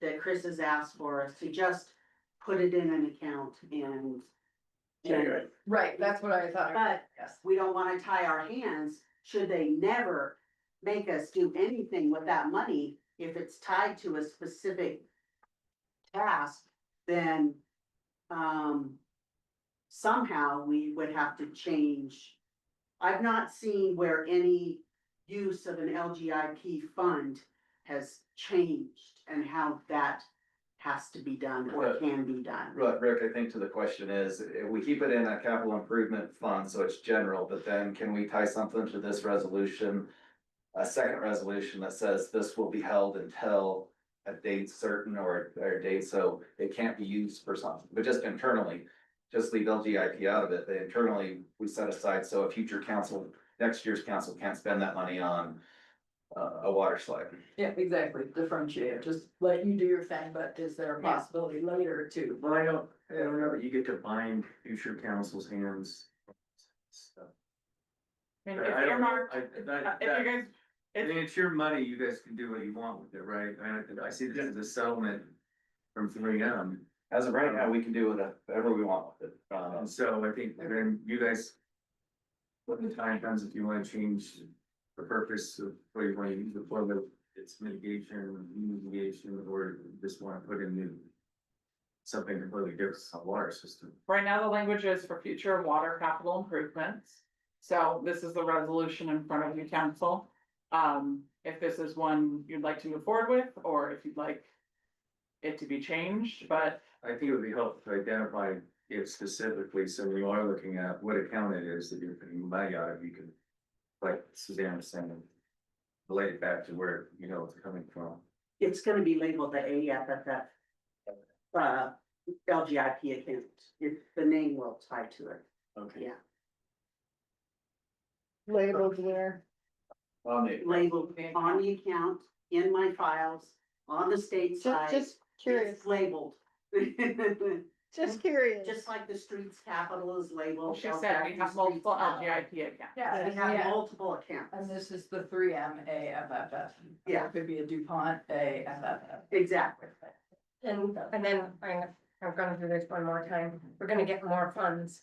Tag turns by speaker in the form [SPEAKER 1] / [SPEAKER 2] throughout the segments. [SPEAKER 1] that Chris has asked for us to just put it in an account and.
[SPEAKER 2] Anyway.
[SPEAKER 3] Right, that's what I thought,
[SPEAKER 1] But
[SPEAKER 3] yes.
[SPEAKER 1] we don't wanna tie our hands, should they never make us do anything with that money, if it's tied to a specific task, then, um, somehow we would have to change. I've not seen where any use of an LGIP fund has changed and how that has to be done or
[SPEAKER 4] Right.
[SPEAKER 1] can be done.
[SPEAKER 4] Right, Rick, I think to the question is, if we keep it in a capital improvement fund, so it's general, but then can we tie something to this resolution? A second resolution that says this will be held until a date certain or, or a date, so it can't be used for something, but just internally. Just leave LGIP out of it, They internally, we set aside, so a future council, next year's council can't spend that money on. Uh, a water slide.
[SPEAKER 3] Yeah, exactly, differentiate, just let you do your thing, but is there a
[SPEAKER 1] Yeah.
[SPEAKER 3] possibility later to?
[SPEAKER 2] Well, I don't, I don't know that you get to bind future council's hands. So,
[SPEAKER 5] I mean,
[SPEAKER 2] I-
[SPEAKER 5] it's
[SPEAKER 2] I don't know.
[SPEAKER 5] earmarked,
[SPEAKER 2] I- that-
[SPEAKER 5] uh, if you guys,
[SPEAKER 2] I mean, it's your money, you guys can do what you want with it, right? I, I see this as a settlement from three M.
[SPEAKER 4] As of right now, we can do whatever we want with it. Um,
[SPEAKER 2] And so I think then you guys. When the time comes, if you wanna change the purpose of what you wanna use it for, whether it's mitigation, mitigation, or just wanna put in new. Something completely different, a water system.
[SPEAKER 5] right now the language is for future water capital improvements. So this is the resolution in front of you, council. Um, if this is one you'd like to move forward with, or if you'd like it to be changed, but
[SPEAKER 2] I think it would be helpful to identify it specifically, so when you are looking at what account it is that you're putting money out of, you can. Like Suzanne was saying. Relate it back to where, you know, it's coming from.
[SPEAKER 1] It's gonna be labeled the AFFF. Uh, LGIP account, It- the name will tie to it.
[SPEAKER 2] Okay.
[SPEAKER 3] Labeled where?
[SPEAKER 4] on the-
[SPEAKER 1] Labeled on the account, in my files, on the state
[SPEAKER 6] Just,
[SPEAKER 1] side,
[SPEAKER 6] just curious,
[SPEAKER 1] it's labeled.
[SPEAKER 6] just curious.
[SPEAKER 1] Just like the streets capital is labeled.
[SPEAKER 5] she said we have multiple
[SPEAKER 1] LGIP.
[SPEAKER 5] LGIP accounts.
[SPEAKER 3] Yeah,
[SPEAKER 1] We have multiple accounts.
[SPEAKER 3] And this is the three M A F F F.
[SPEAKER 1] Yeah.
[SPEAKER 3] It could be a DuPont A F F F.
[SPEAKER 1] Exactly.
[SPEAKER 7] And, and then I'm, I'm gonna do this one more time. We're gonna get more funds.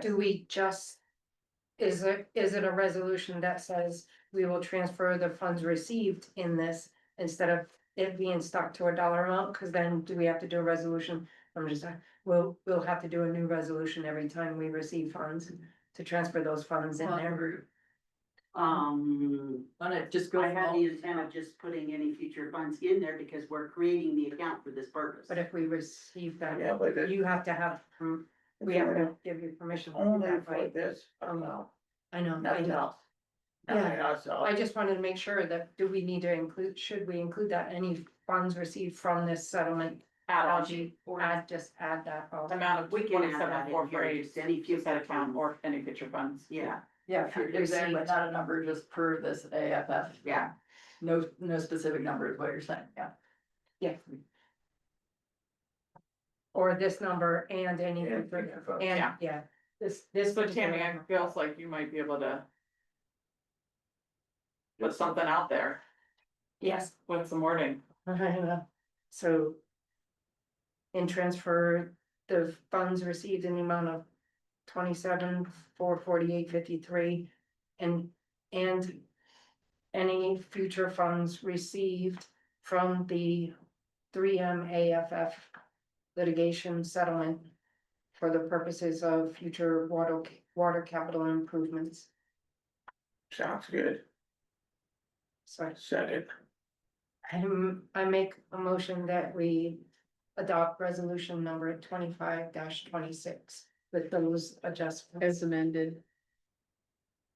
[SPEAKER 7] Do we just? Is it, is it a resolution that says we will transfer the funds received in this instead of it being stuck to a dollar amount? Cause then do we have to do a resolution? I'm just, uh, we'll, we'll have to do a new resolution every time we receive funds to transfer those funds in there.
[SPEAKER 1] Um,
[SPEAKER 3] On it, just go.
[SPEAKER 1] I had the intent of just putting any future funds in there because we're creating the account for this purpose.
[SPEAKER 7] But if we receive them,
[SPEAKER 8] Yeah, but it-
[SPEAKER 7] you have to have, um, we have to give you permission. to do
[SPEAKER 8] Only
[SPEAKER 7] that,
[SPEAKER 8] for
[SPEAKER 7] right?
[SPEAKER 8] this
[SPEAKER 7] Um,
[SPEAKER 8] amount,
[SPEAKER 7] I know, I
[SPEAKER 8] nothing
[SPEAKER 7] know.
[SPEAKER 8] else. Nothing
[SPEAKER 7] Yeah.
[SPEAKER 8] else.
[SPEAKER 7] I just wanted to make sure that, do we need to include, should we include that any funds received from this settlement?
[SPEAKER 5] Allergy
[SPEAKER 7] Or add, just add that. oh, all?
[SPEAKER 5] amount of
[SPEAKER 1] We can add that
[SPEAKER 5] twenty-seven,
[SPEAKER 1] in
[SPEAKER 5] four,
[SPEAKER 1] here,
[SPEAKER 5] four, eight,
[SPEAKER 1] just any future
[SPEAKER 5] set account
[SPEAKER 1] funds.
[SPEAKER 5] or any future funds.
[SPEAKER 1] Yeah,
[SPEAKER 3] Yeah, if you're exactly,
[SPEAKER 7] Received.
[SPEAKER 3] not a number, just per this A F F.
[SPEAKER 1] Yeah.
[SPEAKER 3] No, no specific number is what you're saying, yeah.
[SPEAKER 7] Or this number and any,
[SPEAKER 4] And-
[SPEAKER 7] and,
[SPEAKER 5] Yeah.
[SPEAKER 7] yeah, this, this.
[SPEAKER 5] So Tammy, I
[SPEAKER 7] particular-
[SPEAKER 5] feels like you might be able to put something out there
[SPEAKER 7] Yes,
[SPEAKER 5] with some wording.
[SPEAKER 7] so. And transfer the funds received in the amount of twenty-seven, four forty-eight, fifty-three. And, and any future funds received from the three M A F F litigation settlement. For the purposes of future water, water capital improvements,
[SPEAKER 8] Sounds good,
[SPEAKER 7] so.
[SPEAKER 8] second,
[SPEAKER 7] I m- I make a motion that we adopt resolution number twenty-five twenty-six with those adjustments.
[SPEAKER 6] As amended.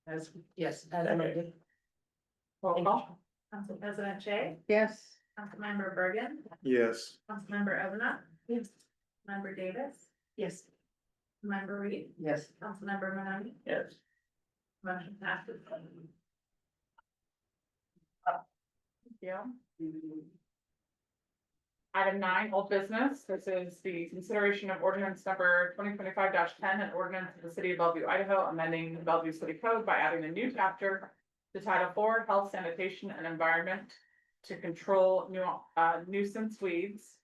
[SPEAKER 7] As, yes, as
[SPEAKER 8] Okay.
[SPEAKER 7] amended.
[SPEAKER 5] Roll call.
[SPEAKER 9] Council President Shay,
[SPEAKER 6] Yes.
[SPEAKER 9] Councilmember Bergen,
[SPEAKER 10] Yes,
[SPEAKER 9] Councilmember Ovina. Yes. Member Davis,
[SPEAKER 7] Yes.
[SPEAKER 9] Member Reed,
[SPEAKER 3] Yes.
[SPEAKER 9] Councilmember Manani,
[SPEAKER 8] yes.
[SPEAKER 9] motion passes.
[SPEAKER 5] Yeah. Item nine, old business. This is the consideration of ordinance number twenty twenty-five ten an ordinance of the city of Bellevue, Idaho, amending the Bellevue City Code by adding a new chapter to Title Four, Health, Sanitation and Environment to control nu- uh, nuisance weeds.